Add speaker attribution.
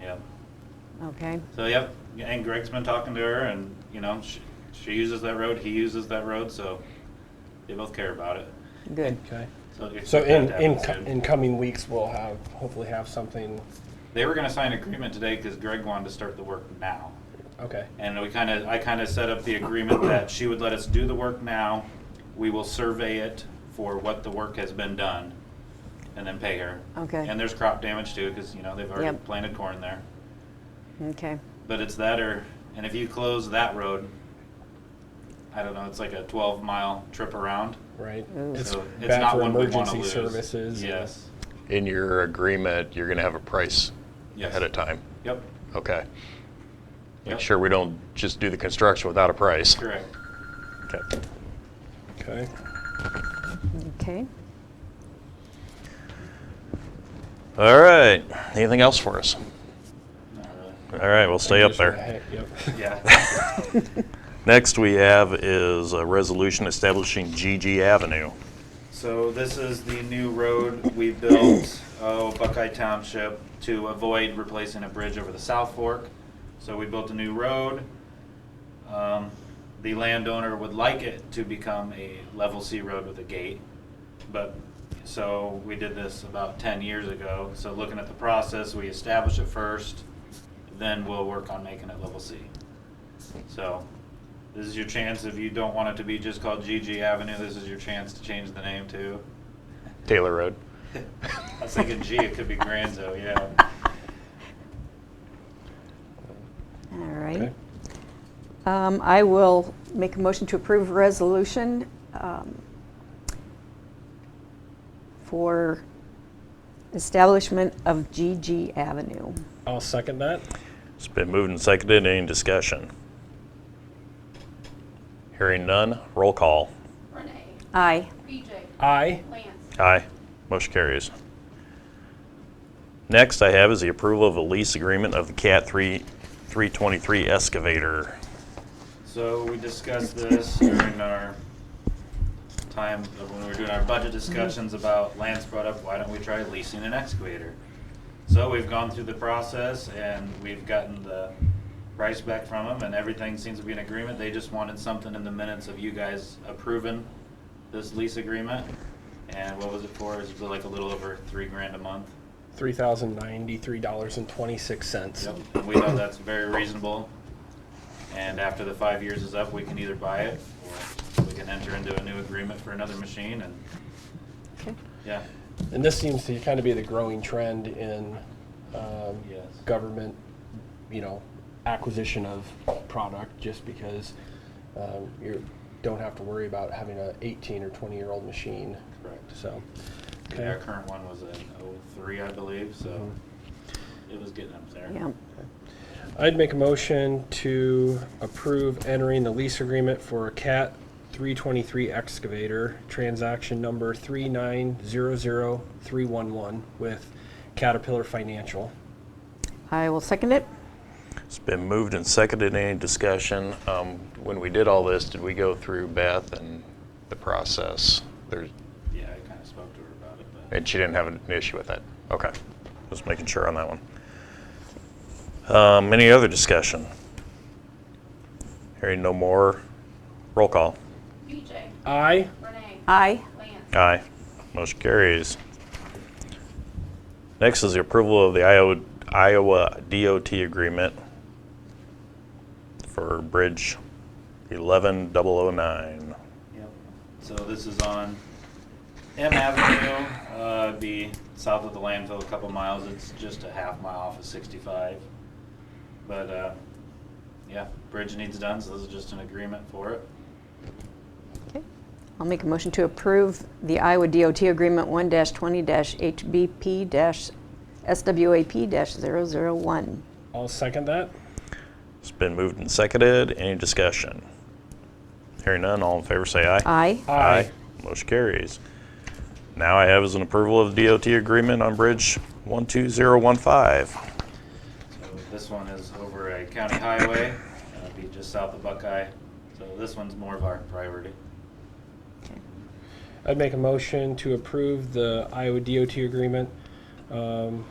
Speaker 1: Yep.
Speaker 2: Okay,
Speaker 1: So, yep, and Greg's been talking to her and, you know, she, she uses that road, he uses that road, so they both care about it.
Speaker 2: good.
Speaker 3: Okay.
Speaker 1: So, it's-
Speaker 3: So in,
Speaker 1: that
Speaker 3: in,
Speaker 1: happens
Speaker 3: co-
Speaker 1: soon.
Speaker 3: in coming weeks, we'll have, hopefully have something,
Speaker 1: They were gonna sign an agreement today because Greg wanted to start the work now.
Speaker 3: okay,
Speaker 1: And we kind of, I kind of set up the agreement that she would let us do the work now. We will survey it for what the work has been done and then pay her.
Speaker 2: Okay.
Speaker 1: And there's crop damage too, because, you know, they've already
Speaker 2: Yep.
Speaker 1: planted corn there.
Speaker 2: Okay,
Speaker 1: But it's that or, and if you close that road, I don't know, it's like a twelve mile trip around.
Speaker 3: right?
Speaker 2: Ooh.
Speaker 3: It's
Speaker 1: So it's
Speaker 3: bad
Speaker 1: not
Speaker 3: for
Speaker 1: one we wanna
Speaker 3: emergency
Speaker 1: lose.
Speaker 3: services. and-
Speaker 1: Yes,
Speaker 4: In your agreement, you're going to have a price
Speaker 1: yes.
Speaker 4: ahead of time?
Speaker 1: Yep,
Speaker 4: Okay.
Speaker 1: Yep.
Speaker 4: Make sure we don't just do the construction without a price.
Speaker 1: correct.
Speaker 4: Okay.
Speaker 3: Okay.
Speaker 2: okay.
Speaker 4: All right. Anything else for us?
Speaker 1: Not really.
Speaker 4: All right, we'll stay up
Speaker 3: Just for the
Speaker 4: there.
Speaker 3: heck, Yep.
Speaker 1: Yeah,
Speaker 4: Next we have is a resolution establishing GG Avenue.
Speaker 1: so this is the new road we built, oh, Buckeye Township, to avoid replacing a bridge over the South Fork. So we built a new road. Um, The landowner would like it to become a level C road with a gate. But, so we did this about ten years ago. So looking at the process, we establish it first, then we'll work on making it level C. So this is your chance, if you don't want it to be just called GG Avenue, this is your chance to change the name to.
Speaker 4: Taylor Road.
Speaker 1: I was thinking G, it could be Granzo, yeah.
Speaker 2: All right.
Speaker 3: Okay.
Speaker 2: Um, I will make a motion to approve resolution um, for establishment of GG Avenue.
Speaker 3: I'll second that.
Speaker 4: It's been moved and seconded. Any discussion? Hearing none, roll call.
Speaker 5: Renee,
Speaker 2: Aye.
Speaker 5: BJ,
Speaker 3: Aye.
Speaker 5: Lance,
Speaker 4: Aye. Motion carries. Next I have is the approval of a lease agreement of the CAT 3 323 excavator.
Speaker 1: So we discussed this during our time of when we were doing our budget discussions about Lance brought up, why don't we try leasing an excavator? So we've gone through the process and we've gotten the price back from them and everything seems to be in agreement. They just wanted something in the minutes of you guys approving this lease agreement. And what was it for? It was like a little over three grand a month.
Speaker 3: Three thousand ninety-three dollars and twenty-six cents.
Speaker 1: Yep, and we know that's very reasonable. And after the five years is up, we can either buy it or we can enter into a new agreement for another machine and,
Speaker 2: Okay.
Speaker 1: yeah.
Speaker 3: And this seems to kind of be the growing trend in um,
Speaker 1: Yes.
Speaker 3: government, you know, acquisition of product, just because um, you don't have to worry about having a 18 or 20 year old machine.
Speaker 1: Correct.
Speaker 3: So,
Speaker 1: Yeah, Our current one was an oh-three, I believe, so it was getting up there.
Speaker 2: Yeah,
Speaker 3: I'd make a motion to approve entering the lease agreement for a CAT 323 excavator, transaction number 3900311 with Caterpillar Financial.
Speaker 2: I will second it.
Speaker 4: It's been moved and seconded. Any discussion? Um, When we did all this, did we go through Beth and the process? There's,
Speaker 1: Yeah, I kinda spoke to her about it, but.
Speaker 4: and she didn't have an issue with it? Okay, just making sure on that one. Um, Any other discussion? Hearing no more, roll call.
Speaker 5: BJ,
Speaker 3: Aye.
Speaker 5: Renee,
Speaker 2: Aye.
Speaker 5: Lance.
Speaker 4: Aye. Motion carries. Next is the approval of the Iowa Iowa DOT agreement for Bridge 11009.
Speaker 1: Yep. So this is on M Avenue, uh, it'd be south of the landfill, a couple miles. It's just a half mile off of sixty-five. But, uh, yeah, bridge needs done, so this is just an agreement for it.
Speaker 2: Okay. I'll make a motion to approve the Iowa DOT Agreement 1-20-HBP-SWAP-001.
Speaker 3: I'll second that.
Speaker 4: It's been moved and seconded. Any discussion? Hearing none, all in favor say aye.
Speaker 2: Aye.
Speaker 4: Motion carries. Now I have is an approval of the DOT agreement on Bridge 12015.
Speaker 1: So this one is over a county highway, uh, it'd be just south of Buckeye. So this one's more of our priority.
Speaker 3: I'd make a motion to approve the Iowa DOT agreement um,